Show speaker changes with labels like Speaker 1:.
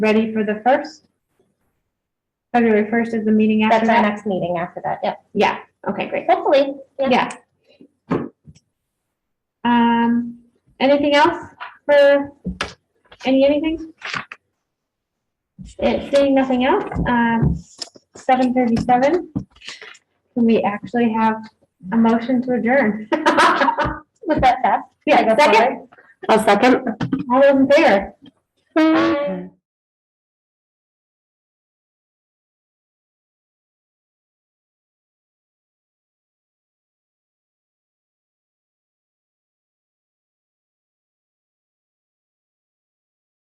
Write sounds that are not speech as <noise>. Speaker 1: ready for the first? February first is the meeting after
Speaker 2: That's our
Speaker 1: that?
Speaker 2: next meeting after that, yep.
Speaker 1: Yeah, okay, great.
Speaker 2: Hopefully, yeah.
Speaker 1: Yeah. Um, anything else for, any, anything? It, seeing nothing else, um, seven thirty-seven. Can we actually have a motion to adjourn? <laughs>
Speaker 2: Was that fast?
Speaker 1: Yeah,
Speaker 2: Can I go
Speaker 1: second,
Speaker 2: forward?
Speaker 3: I'll second.
Speaker 1: all those in favor?
Speaker 2: Bye.